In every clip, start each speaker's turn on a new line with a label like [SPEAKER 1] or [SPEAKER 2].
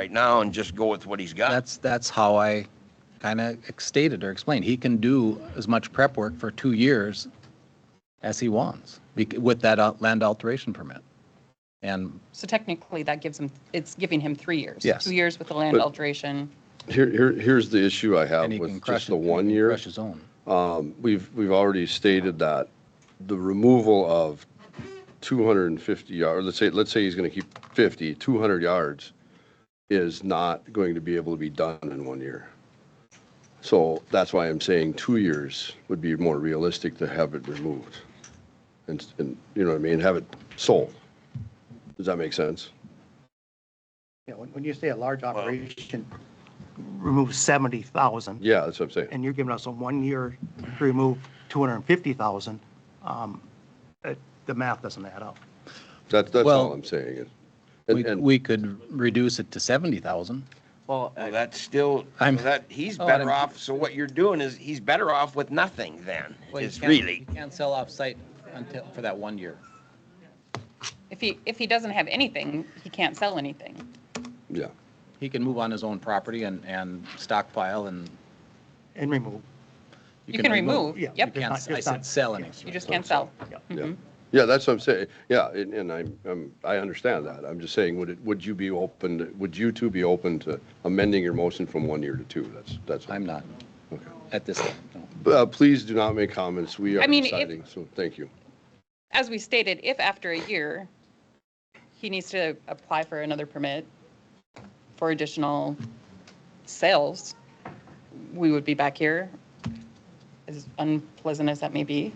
[SPEAKER 1] right now and just go with what he's got.
[SPEAKER 2] That's, that's how I kind of stated or explained. He can do as much prep work for two years as he wants bec- with that uh, land alteration permit. And
[SPEAKER 3] So technically, that gives him, it's giving him three years.
[SPEAKER 2] Yes.
[SPEAKER 3] Two years with the land
[SPEAKER 4] But-
[SPEAKER 3] alteration.
[SPEAKER 4] Here, here, here's the issue I have
[SPEAKER 2] and he can
[SPEAKER 4] with
[SPEAKER 2] crush
[SPEAKER 4] just
[SPEAKER 2] it.
[SPEAKER 4] the
[SPEAKER 2] he
[SPEAKER 4] one
[SPEAKER 2] can
[SPEAKER 4] year.
[SPEAKER 2] Crush his own.
[SPEAKER 4] Um, We've, we've already stated that the removal of 250 yards, let's say, let's say he's going to keep 50, 200 yards is not going to be able to be done in one year. So that's why I'm saying two years would be more realistic to have it removed. And, and, you know what I mean, have it sold. Does that make sense?
[SPEAKER 5] Yeah, when, when you say a large operation, remove seventy thousand,
[SPEAKER 4] Yeah, that's what I'm saying.
[SPEAKER 5] and you're giving us a one year to remove two hundred and fifty thousand, um, it- the math doesn't add up.
[SPEAKER 4] That's, that's
[SPEAKER 2] Well-
[SPEAKER 4] all I'm saying. And-
[SPEAKER 2] We,
[SPEAKER 4] and-
[SPEAKER 2] we could reduce it to 70,000.
[SPEAKER 1] Well, that's still,
[SPEAKER 2] I'm-
[SPEAKER 1] that, he's
[SPEAKER 2] Oh,
[SPEAKER 1] better
[SPEAKER 2] I'm-
[SPEAKER 1] off, so what you're doing is, he's better off with nothing then, is really.
[SPEAKER 2] can't sell off-site until, for that one year.
[SPEAKER 3] If he, if he doesn't have anything, he can't sell anything.
[SPEAKER 4] Yeah,
[SPEAKER 2] He can move on his own property and, and stockpile and.
[SPEAKER 5] And remove,
[SPEAKER 3] You can remove,
[SPEAKER 5] yeah.
[SPEAKER 3] yep.
[SPEAKER 5] just
[SPEAKER 2] Can't-
[SPEAKER 5] not-
[SPEAKER 2] I
[SPEAKER 5] just
[SPEAKER 2] said
[SPEAKER 5] not-
[SPEAKER 2] sell
[SPEAKER 5] yeah,
[SPEAKER 2] anything.
[SPEAKER 3] You just can't sell.
[SPEAKER 5] Yeah.
[SPEAKER 3] Hmm?
[SPEAKER 4] yeah. Yeah, that's what I'm saying. Yeah, and, and I'm, I'm, I understand that. I'm just saying, would it, would you be open, would you two be open to amending your motion from one year to two? That's, that's.
[SPEAKER 2] I'm not
[SPEAKER 4] Okay.
[SPEAKER 2] at this, time, no.
[SPEAKER 4] But, uh, please do not make comments. We are
[SPEAKER 3] I mean, if-
[SPEAKER 4] deciding, so thank you.
[SPEAKER 3] As we stated, if after a year, he needs to apply for another permit for additional sales, we would be back here, as unpleasant as that may be.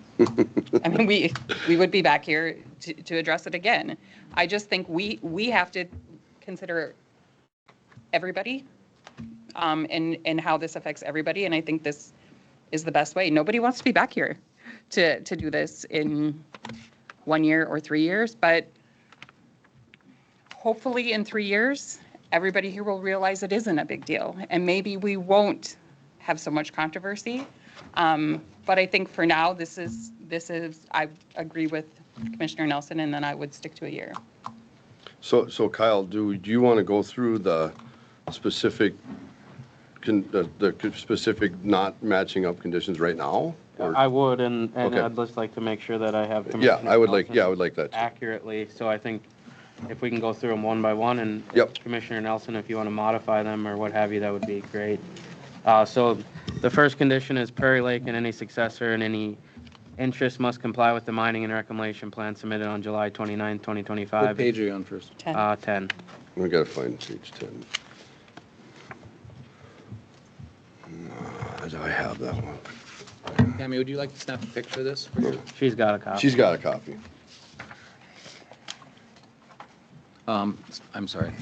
[SPEAKER 3] I mean, we, we would be back here to, to address it again. I just think we, we have to consider everybody um, and, and how this affects everybody. And I think this is the best way. Nobody wants to be back here to, to do this in one year or three years, but hopefully in three years, everybody here will realize it isn't a big deal. And maybe we won't have so much controversy. Um, But I think for now, this is, this is, I agree with Commissioner Nelson, and then I would stick to a year.
[SPEAKER 4] So, so Kyle, do, do you want to go through the specific, con- uh, the, the specific not matching up conditions right now? Or-
[SPEAKER 6] I would, and, and
[SPEAKER 4] Okay.
[SPEAKER 6] I'd just like to make sure that I have.
[SPEAKER 4] Yeah, I would like, yeah,
[SPEAKER 6] Commissioner
[SPEAKER 4] I
[SPEAKER 6] Nelson
[SPEAKER 4] would like that. too.
[SPEAKER 6] Accurately, so I think if we can go through them one by one and.
[SPEAKER 4] Yep.
[SPEAKER 6] Commissioner Nelson, if you want to modify them or what have you, that would be great. Uh, so the first condition is Prairie Lake and any successor and any interest must comply with the mining and reclamation plan submitted on July 29,
[SPEAKER 2] What
[SPEAKER 6] 2025.
[SPEAKER 2] page are you on first?
[SPEAKER 3] Ten.
[SPEAKER 6] Uh, 10.
[SPEAKER 4] We gotta find page ten. Uh, Do I have that one?
[SPEAKER 2] Tammy, would you like to snap a picture of this? for your-
[SPEAKER 6] She's got a copy.
[SPEAKER 4] She's got a copy.
[SPEAKER 2] Um, I'm sorry.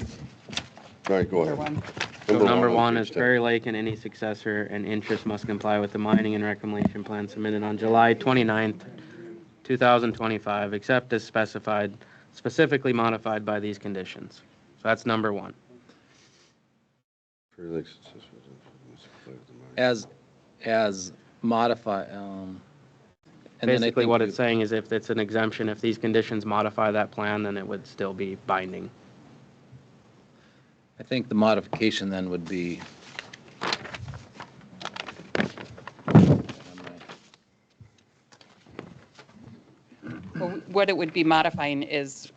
[SPEAKER 4] All right, go
[SPEAKER 3] for
[SPEAKER 4] ahead.
[SPEAKER 3] one.
[SPEAKER 6] So number one
[SPEAKER 4] page
[SPEAKER 6] is
[SPEAKER 4] 10.
[SPEAKER 6] Prairie Lake and any successor and interest must comply with the mining and reclamation plan submitted on July 29th, 2025, except as specified, specifically modified by these conditions. So that's number one.
[SPEAKER 4] Prairie Lake successful must play with the mind.
[SPEAKER 2] As, as modify, um. and then I
[SPEAKER 6] Basically,
[SPEAKER 2] think
[SPEAKER 6] what
[SPEAKER 2] we-
[SPEAKER 6] it's saying is if it's an exemption, if these conditions modify that plan, then it would still be binding.
[SPEAKER 2] I think the modification then would be.
[SPEAKER 3] Well, What it would be modifying is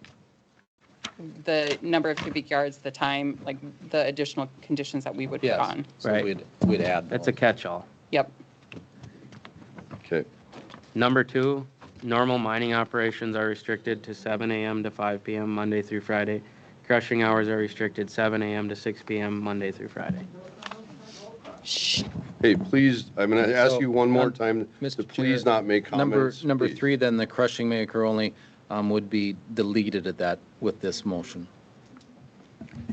[SPEAKER 3] the number of cubic yards, the time, like the additional conditions that we would put
[SPEAKER 2] Yes.
[SPEAKER 3] on.
[SPEAKER 2] So
[SPEAKER 6] Right.
[SPEAKER 2] We'd, we'd add.
[SPEAKER 6] That's a
[SPEAKER 2] those.
[SPEAKER 6] catch-all.
[SPEAKER 3] Yep.
[SPEAKER 4] Okay,
[SPEAKER 6] Number two, normal mining operations are restricted to 7 AM to 5 PM, Monday through Friday. Crushing hours are restricted 7 AM to 6 PM, Monday through Friday.
[SPEAKER 3] Shh.
[SPEAKER 4] hey, please, I'm gonna ask
[SPEAKER 2] So,
[SPEAKER 4] you one more
[SPEAKER 2] num-
[SPEAKER 4] time to
[SPEAKER 2] Mr.
[SPEAKER 4] please
[SPEAKER 2] Chair,
[SPEAKER 4] not make
[SPEAKER 2] Number,
[SPEAKER 4] comments.
[SPEAKER 2] number
[SPEAKER 4] please.
[SPEAKER 2] three, then the crushing maker only um, would be deleted at that, with this motion.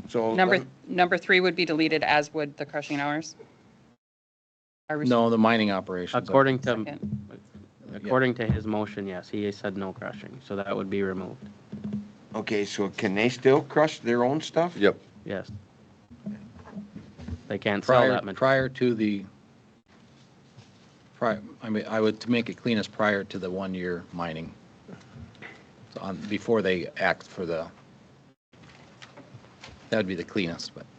[SPEAKER 1] So,
[SPEAKER 3] Number, number three would be deleted, as would the crushing hours? Are we-
[SPEAKER 2] No, the mining operations.
[SPEAKER 6] According to,
[SPEAKER 3] Second.
[SPEAKER 6] according to his motion, yes, he said no crushing, so that would be removed.
[SPEAKER 1] okay, so can they still crush their own stuff?
[SPEAKER 4] Yep,
[SPEAKER 6] Yes. They can't sell
[SPEAKER 2] Prior,
[SPEAKER 6] that material.
[SPEAKER 2] prior to the, prior, I mean, I would, to make it clean is prior to the one-year mining. So on, before they act for the, that would be the cleanest, but